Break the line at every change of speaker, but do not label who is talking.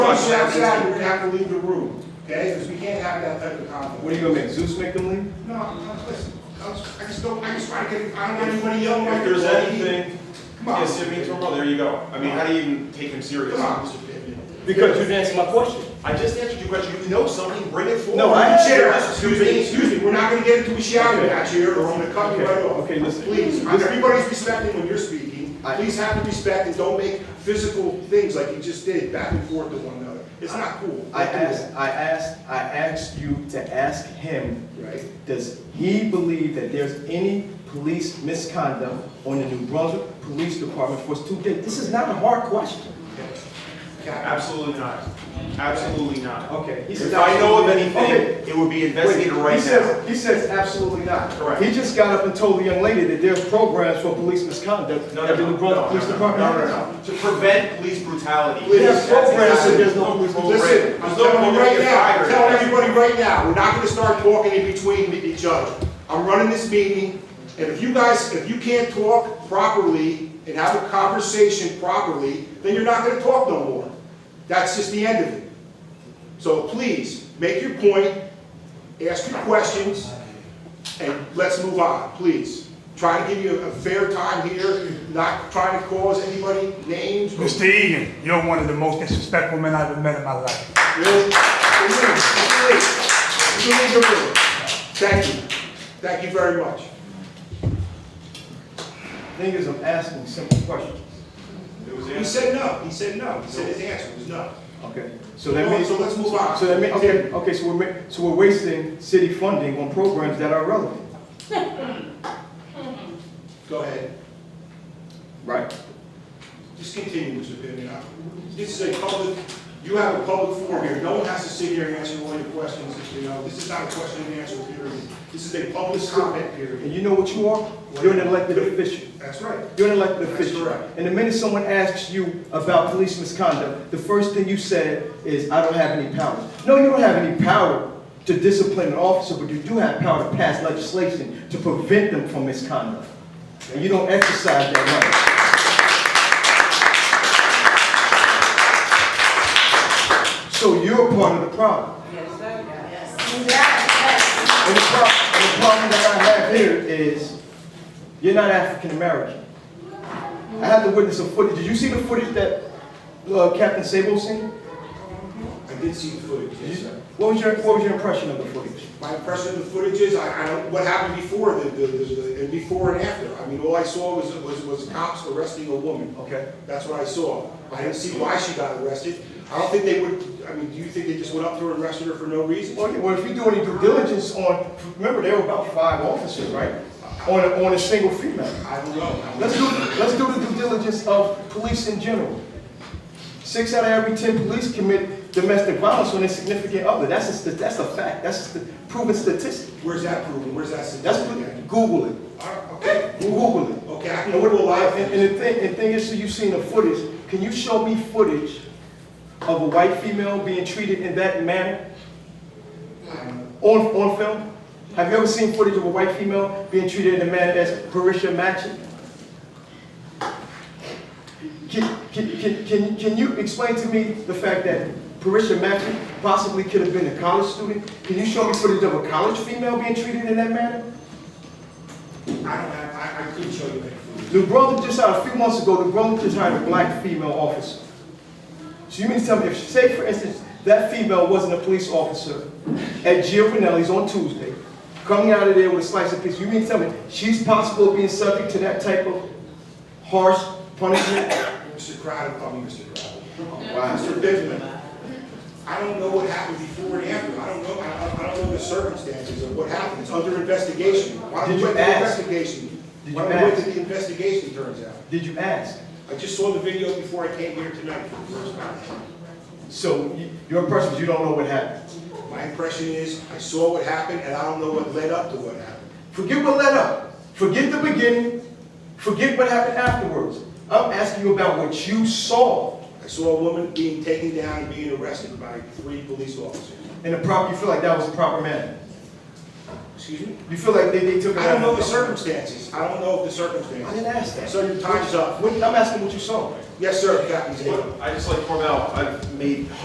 you outside, you're gonna have to leave the room, okay? Because we can't have that type of conflict.
What are you gonna make, Zeus make them leave?
No, I'm, I'm- listen, I'm just- I just don't, I just try to get, I don't want anybody yelling
If
at
there's
me.
anything,
Come on.
yes, I mean, tomorrow, there you go. I mean, how do you even take him serious?
Come on.
Because you didn't answer my question.
I just answered your question, you know somebody, bring it forward.
No, I-
Chair, excuse me, excuse me, we're not gonna get into a shouting match here, or I'm gonna cut you right off.
Okay, listen.
Please, I- everybody's respecting when you're speaking,
I-
please have the respect and don't make physical things like you just did, back and forth to one another. It's not cool.
I
Don't do that.
asked, I asked, I asked you to ask him,
Right.
does he believe that there's any police misconduct on the New Brunswick Police Department for two days? This is not a hard question.
Cap-
Absolutely not, absolutely not.
Okay. he says
If I know of
Okay.
anything, it would be investigated
Wait,
right
he
now.
says, he says absolutely not.
Correct.
He just got up and told the young lady that there's programs for police misconduct
No,
at the New
no, no, no,
Brunswick Police
no, no,
Department.
no, no, no. To prevent police brutality.
Please,
There's programs
that's
and
exactly-
there's no police.
Listen, I'm telling you right now, I'm telling everybody right now, we're not gonna start talking in between with each other. I'm running this meeting, and if you guys, if you can't talk properly and have a conversation properly, then you're not gonna talk no more. That's just the end of it. So please, make your point, ask your questions, and let's move on, please. Try to give you a fair time here, not trying to cause anybody names. or-
Mr. Egan, you're one of the most disrespectful men I've ever met in my life.
Really? Really? Really? Really? Thank you. Thank you very much.
Thing is, I'm asking simple questions.
It was
He
answered.
said no, he said no, he said his answer was no.
Okay, so that means.
So let's move on.
So that means, okay, okay, so we're, ma- so we're wasting city funding on programs that are relevant.
Go ahead,
Right.
just continue, Mr. Pimenta. This is a public, you have a public forum here, no one has to sit here and answer all your questions, you know, this is not a question and answer period. This is a public comment
And
period.
you know what you are? You're an elected official.
That's right.
You're an elected
That's
official.
correct.
And the minute someone asks you about police misconduct, the first thing you said is, I don't have any power. No, you don't have any power to discipline an officer, but you do have power to pass legislation to prevent them from misconduct. And you don't exercise that right. So you're part of the problem.
Yes, sir. Yes.
And the problem, and the problem that I have here is, you're not African American. I have to witness a footage, did you see the footage that uh, Captain Sable seen?
I did see the footage, yes, sir.
What was your, what was your impression of the footage?
My impression of the footage is, I, I don't, what happened before, the, the, the- the, and before and after. I mean, all I saw was, was, was cops arresting a woman.
Okay.
That's what I saw. I didn't see why she got arrested. I don't think they would, I mean, do you think they just went up to her and arrested her for no reason?
Well, yeah, well, if you do any due diligence on, remember, there were about five officers, right? On, a- on a single female.
I don't know.
Let's do, let's do the due diligence of police in general. Six out of every ten police commit domestic violence on their significant other. That's a, st- that's a fact. That's a st- proven statistic.
Where's that proven? Where's that?
That's
statistic?
Google it.
Alright, Okay,
Google it.
okay, I can
And
go
what
to a
do I?
live.
And, and the thing, and thing is, so you've seen the footage. Can you show me footage of a white female being treated in that manner on on film? Have you ever seen footage of a white female being treated in a manner that's Parisha matching? Can, can, can, can, can you explain to me the fact that Parisha Matthew possibly could have been a college student? Can you show me footage of a college female being treated in that manner?
I don't have, I, I couldn't show you that footage.
New Brunswick just hired, a few months ago, New Brunswick just hired a black female officer. So you mean to tell me, if, say for instance, that female wasn't a police officer at Giovanelli's on Tuesday, coming out of there with a slice of pizza, you mean to tell me she's possible of being subject to that type of harsh punishment?
Mr. Crowder, call me Mr. Crowder.
Wow.
Mr. Benjamin, I don't know what happened before and after. I don't know, I don't- I don't know the circumstances of what happened. It's under investigation. Why don't
Did
we
you
wait till the
ask?
investigation?
Did
Why
you
don't we wait
ask?
till the investigation turns out?
Did you ask?
I just saw the video before I came here tonight for the first time.
So y- your impression is you don't know what happened.
My impression is, I saw what happened, and I don't know what led up to what happened.
Forget what led up. Forget the beginning. Forget what happened afterwards. I'm asking you about what you saw.
I saw a woman being taken down and being arrested by three police officers.
And the proper, you feel like that was the proper manner?
Excuse me?
You feel like they, they took it
I don't
out
know
of
the
the circle?
circumstances. I don't know of the circumstances.
I didn't ask that.
Sir, your time's up.
What, I'm asking what you saw.
Yes, sir, Captain Zaidi.
I just like Cornell, I've made